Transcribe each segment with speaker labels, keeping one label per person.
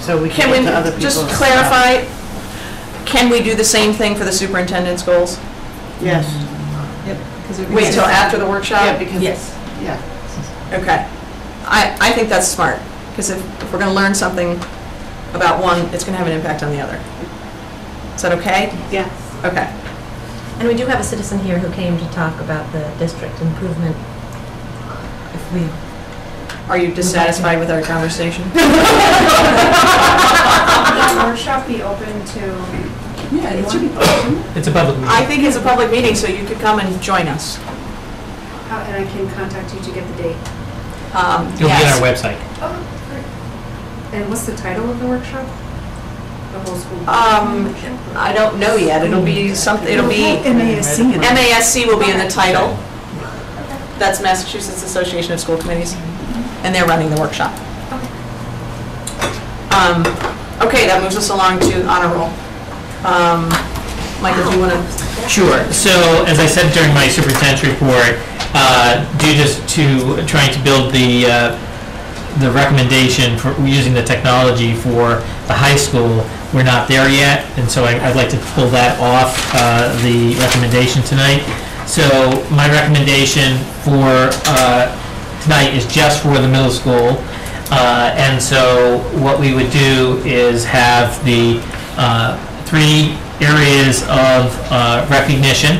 Speaker 1: So we
Speaker 2: Can
Speaker 1: can get to other
Speaker 2: we
Speaker 1: people's.
Speaker 2: just clarify, can we do the same thing for the superintendent's goals?
Speaker 1: Yes.
Speaker 2: Wait till after the
Speaker 1: Yeah,
Speaker 2: workshop?
Speaker 1: Uh, because,
Speaker 3: Yes.
Speaker 1: yeah,
Speaker 2: Okay. I, I think that's smart, because if, if we're gonna learn something about one, it's gonna have an impact on the other. Is that okay?
Speaker 1: yeah.
Speaker 2: Okay.
Speaker 3: And we do have a citizen here who came to talk about the district improvement. If we,
Speaker 2: Are you dissatisfied with our conversation?
Speaker 4: Will the workshop be open to,
Speaker 1: Yeah, it should be.
Speaker 5: It's a public
Speaker 2: I
Speaker 5: meeting.
Speaker 2: think it's a public meeting, so you could come and join us.
Speaker 4: how- and I can contact you to get the date?
Speaker 2: Um,
Speaker 5: It'll be on our
Speaker 2: yes.
Speaker 5: website.
Speaker 4: And what's the title of the workshop? The whole school?
Speaker 2: Um, I don't know yet. It'll be something, it'll be, MASC will be in the title. That's Massachusetts Association of School Committees, and they're running the workshop. Um, Okay, that moves us along to honor roll. Um, Michael, do you want to?
Speaker 5: Sure. So as I said during my superintendent's report, uh, due just to trying to build the, uh, the recommendation for using the technology for the high school, we're not there yet. And so I- I'd like to pull that off uh, the recommendation tonight. So my recommendation for uh, tonight is just for the middle school. Uh, And so what we would do is have the uh, three areas of uh, recognition,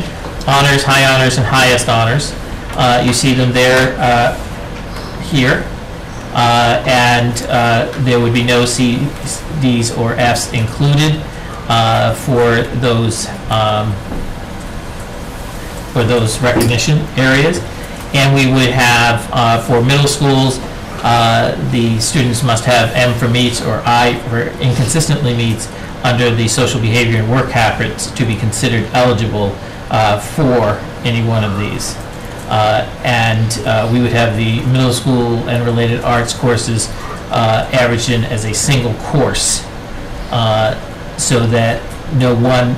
Speaker 5: honors, high honors, and highest honors. Uh, You see them there, uh, here. Uh, And uh, there would be no Cs, Ds, or Fs included uh, for those, um, for those recognition areas. And we would have, uh, for middle schools, uh, the students must have M for meets or I for inconsistently meets under the social behavior and work habits to be considered eligible uh, for any one of these. Uh, And uh, we would have the middle school and related arts courses uh, averaged in as a single course uh, so that no one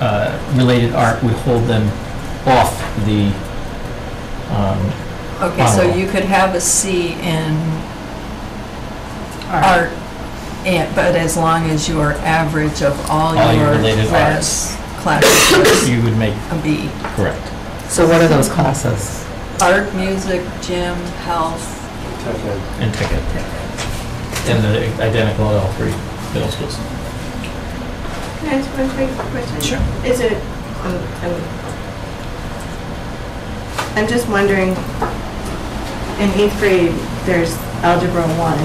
Speaker 5: uh, related art would hold them off the, um,
Speaker 6: Okay, so
Speaker 5: Honorable.
Speaker 6: you could have a C in art, and- but as long as your average of all
Speaker 5: All your
Speaker 6: your
Speaker 5: related
Speaker 6: class, classes
Speaker 5: you would make
Speaker 6: a B.
Speaker 5: correct.
Speaker 7: So what are those classes?
Speaker 6: Art, music, gym, health,
Speaker 5: And tech ed. And they're identical at all three middle schools.
Speaker 4: Can I ask one quick question? Sure. Is it, um,
Speaker 1: I'm- I'm just wondering, in eighth grade, there's algebra one.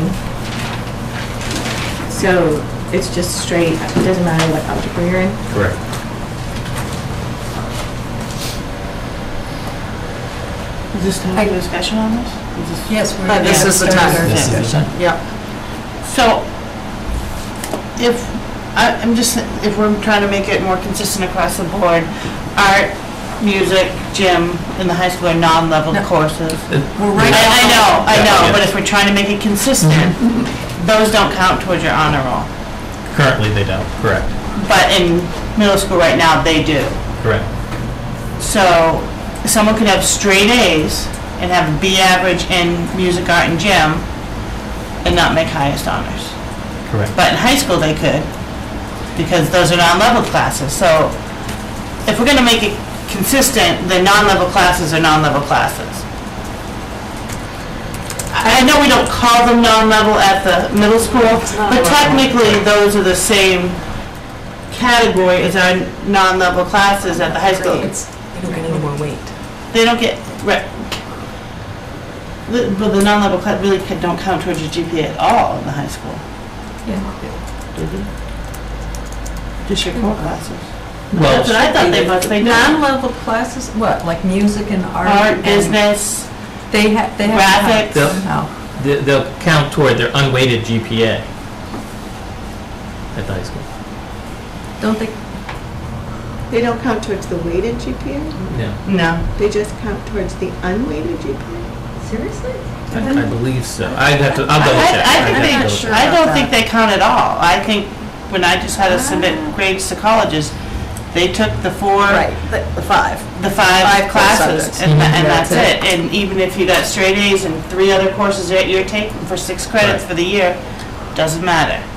Speaker 1: So it's just straight, it doesn't matter what algebra you're in.
Speaker 5: Correct.
Speaker 1: Is this time for discussion on this?
Speaker 6: yes, we're.
Speaker 2: But this
Speaker 6: yeah,
Speaker 2: is the
Speaker 6: third
Speaker 2: time.
Speaker 6: or
Speaker 5: This
Speaker 6: fifth.
Speaker 5: is the time.
Speaker 2: Yeah.
Speaker 1: So if, I- I'm just, if we're trying to make it more consistent across the board, art, music, gym in the high school are non-level courses.
Speaker 5: Uh,
Speaker 6: We're
Speaker 1: I,
Speaker 6: right
Speaker 1: I know, I
Speaker 5: Yeah,
Speaker 1: know,
Speaker 5: yeah.
Speaker 1: but if we're trying to make it consistent, those don't count towards your honor roll.
Speaker 5: Currently, they don't. Correct.
Speaker 1: But in middle school right now, they do.
Speaker 5: Correct.
Speaker 1: So someone could have straight A's and have a B average in music, art, and gym and not make highest honors.
Speaker 5: Correct.
Speaker 1: But in high school, they could, because those are non-level classes. So if we're gonna make it consistent, then non-level classes are non-level classes. I I know we don't call them non-level at the middle school, but technically, those are the same category as our non-level classes at the high school.
Speaker 2: They don't get any more weight.
Speaker 1: They don't get, right. The- But the non-level class really could- don't count towards your GPA at all in the high school.
Speaker 6: Yeah.
Speaker 1: Just your core classes.
Speaker 5: Well,
Speaker 1: That's what I thought they must, they do.
Speaker 6: Non-level classes, what, like music and art?
Speaker 1: Art,
Speaker 6: and-
Speaker 1: business,
Speaker 6: They have, they have. Oh.
Speaker 1: graphics.
Speaker 5: Yep.
Speaker 6: Somehow.
Speaker 5: they- they'll count toward their unweighted GPA at the high school.
Speaker 6: Don't they,
Speaker 8: They don't count towards the weighted GPA,
Speaker 5: No,
Speaker 1: No.
Speaker 8: they just count towards the unweighted GPA?
Speaker 3: Seriously?
Speaker 5: I I believe so. I'd have to, I'll
Speaker 1: I-
Speaker 5: double check.
Speaker 1: I
Speaker 5: I'd
Speaker 1: think
Speaker 5: have to
Speaker 1: they-
Speaker 5: double check.
Speaker 1: I
Speaker 6: about
Speaker 1: don't think they count at all. I think when I just had to submit
Speaker 6: Ah.
Speaker 1: grades to colleges, they took the four,
Speaker 2: Right, the- the five.
Speaker 1: the
Speaker 2: Five
Speaker 1: five
Speaker 2: core subjects.
Speaker 1: classes, and tha- and
Speaker 6: That's
Speaker 1: that's it. And even if you got straight A's and three other courses that you're taking for six credits
Speaker 5: Right.
Speaker 1: for the year, doesn't matter.